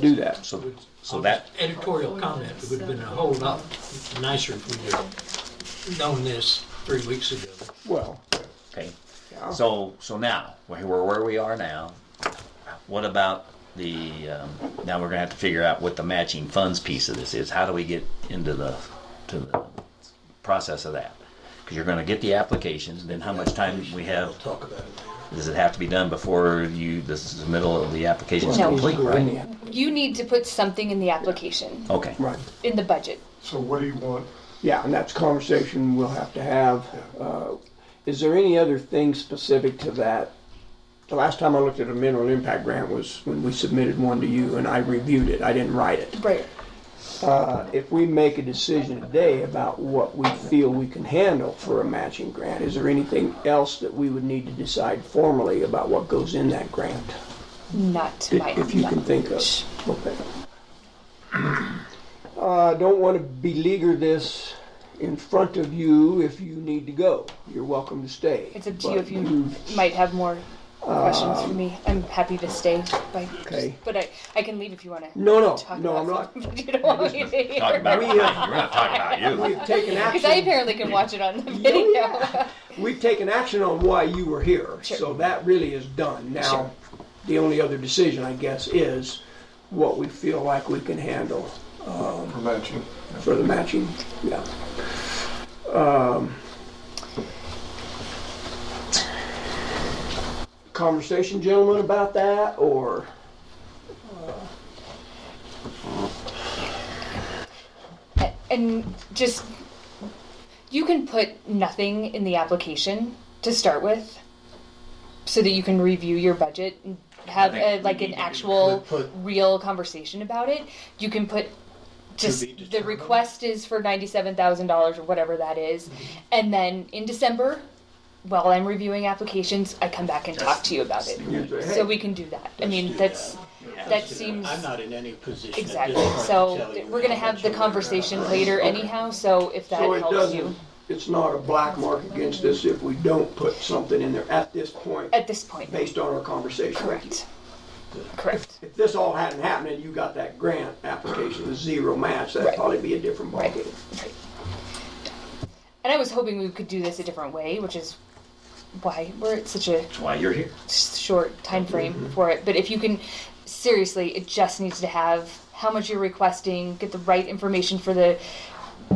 do that. So, so that, Editorial comment, it would have been a whole lot nicer if we had known this three weeks ago. Well, okay. Yeah. So, so now, where, where where we are now, what about the, um, now we're gonna have to figure out what the matching funds piece of this is. How do we get into the, to the process of that? Because you're gonna get the applications, then how much time we have, We'll talk about it does it have to be done before you, this is the middle of the application is No. complete, right? You need to put something in the application, Okay, right. in the budget. So what do you want? Yeah, and that's a conversation we'll have to have. Uh, Is there any other thing specific to that? The last time I looked at a mineral impact grant was when we submitted one to you and I reviewed it. I didn't write it. Right. Uh, If we make a decision today about what we feel we can handle for a matching grant, is there anything else that we would need to decide formally about what goes in that grant? Not to my If if you can think of. knowledge. Okay. I don't want to beleaguer this in front of you if you need to go. You're welcome to stay. It's up to you But Um, if you might have more questions for me. I'm happy to stay. By, Okay. But I, I can leave if you want to. No, no, talk no, I'm about not. something, but you don't want me to hear. talk about, We, uh, me. we're not talking about you. We've taken Because I action, apparently can watch it on the video. we've taken action on why you were here, so that really is done. Sure. Now, the only other decision, I guess, is what we feel like we can handle um, for matching? for the matching, yeah. Um, Conversation, gentlemen, about that, or? and just you can put nothing in the application to start with so that you can review your budget and have I think a, we like need an to actual put- real conversation about it you can put just be the determined. request is for $97000 or whatever that is. Mm-hmm. and then in december while i'm reviewing applications i come back and talk to you about it so we can do that i mean do that's later. That seems- I'm not in any position at this exactly point to so tell you we're going to how have much the you're gonna conversation later anyhow so if that So it helps you doesn't, it's not a black mark against us if we don't put something in there at this point, At this point. based on our conversation. Correct. Correct. If this all hadn't happened and you got that grant application, the zero match, that'd Right. probably be a different Right. ballgame. Right. And I was hoping we could do this a different way, which is why we're at such a That's why you're here. s- short time frame Mm-hmm. for it. But if you can, seriously, it just needs to have how much you're requesting, get the right information for the,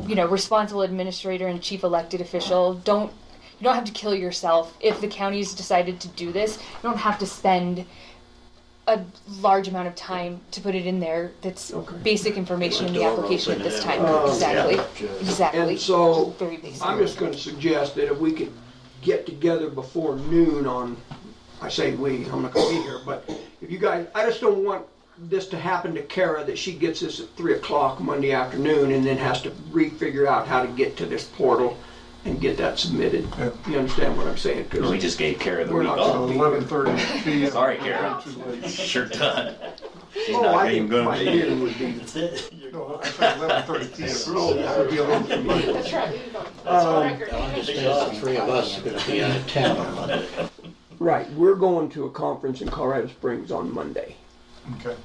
you know, responsible administrator and chief elected official. Don't you don't have to kill yourself if the county's decided to do this. You don't have to spend a large amount of time to put it in there. That's Okay. basic information in the Door open application at this and- time. Oh, exactly. yeah. Exactly. And so, very basic. I'm just gonna suggest that if we could get together before noon on, I say we, I'm not gonna be here, but if you guys, I just don't want this to happen to Kara, that she gets this at three o'clock Monday afternoon and then has to re-figure out how to get to this portal and get that submitted. Yeah. You understand what I'm saying? 'Cause We just gave Kara the We're week not off. gonna- Eleven thirty PM. Sorry, Karen. Too late. Sure done. She's Oh, not I even think gonna my be here. hearing would be- No, I said eleven thirty PM. That would be a little too late. I understand all three of us are going to be out of town on Monday. Right, we're going to a conference in Colorado Springs on Monday. Okay.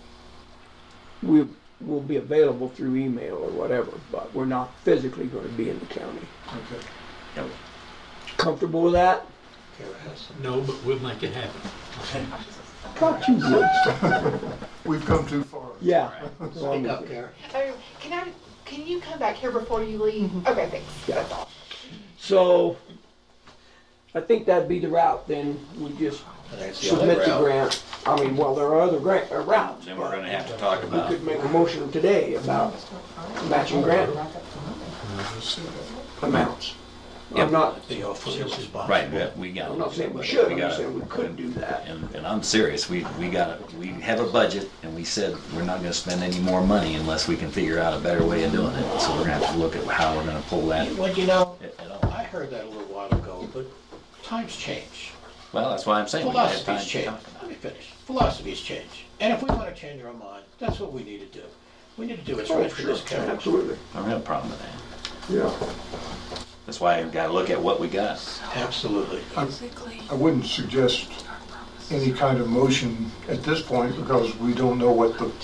We will be available through email or whatever, but we're not physically gonna be in the county. Okay. Comfortable with that? Kara has some- No, but we'll make it happen. Thought you would. We've come too far. Yeah. Speak up, Kara. Oh, can I? Can you come back here before you leave? Okay, thanks. That's all. So I think that'd be the route then. We just That's the only submit the route. grant. I mean, well, there are other grant, uh, routes. Then we're gonna have to talk We about, could make a motion today about matching grant amounts. I'm not, The offer is possible. right, but we got. I'm not saying we should, I'm gotta- just saying we could do that. And, and I'm serious, we, we got, we have a budget and we said we're not gonna spend any more money unless we can figure out a better way of doing it. So we're gonna have to look at how we're gonna pull that. Well, you know, at- at all. I heard that a little while ago, but times change. Well, that's why I'm saying. we gotta have time Philosophies to change. talk about Let me finish. Philosophies change. And if we want to change our mind, that's what we need to do. We need to do what's right for this county. Absolutely, it. I don't have a problem with that. yeah. That's why I've gotta look at what we got. Absolutely. I wouldn't suggest any kind of motion at this point because we don't know what the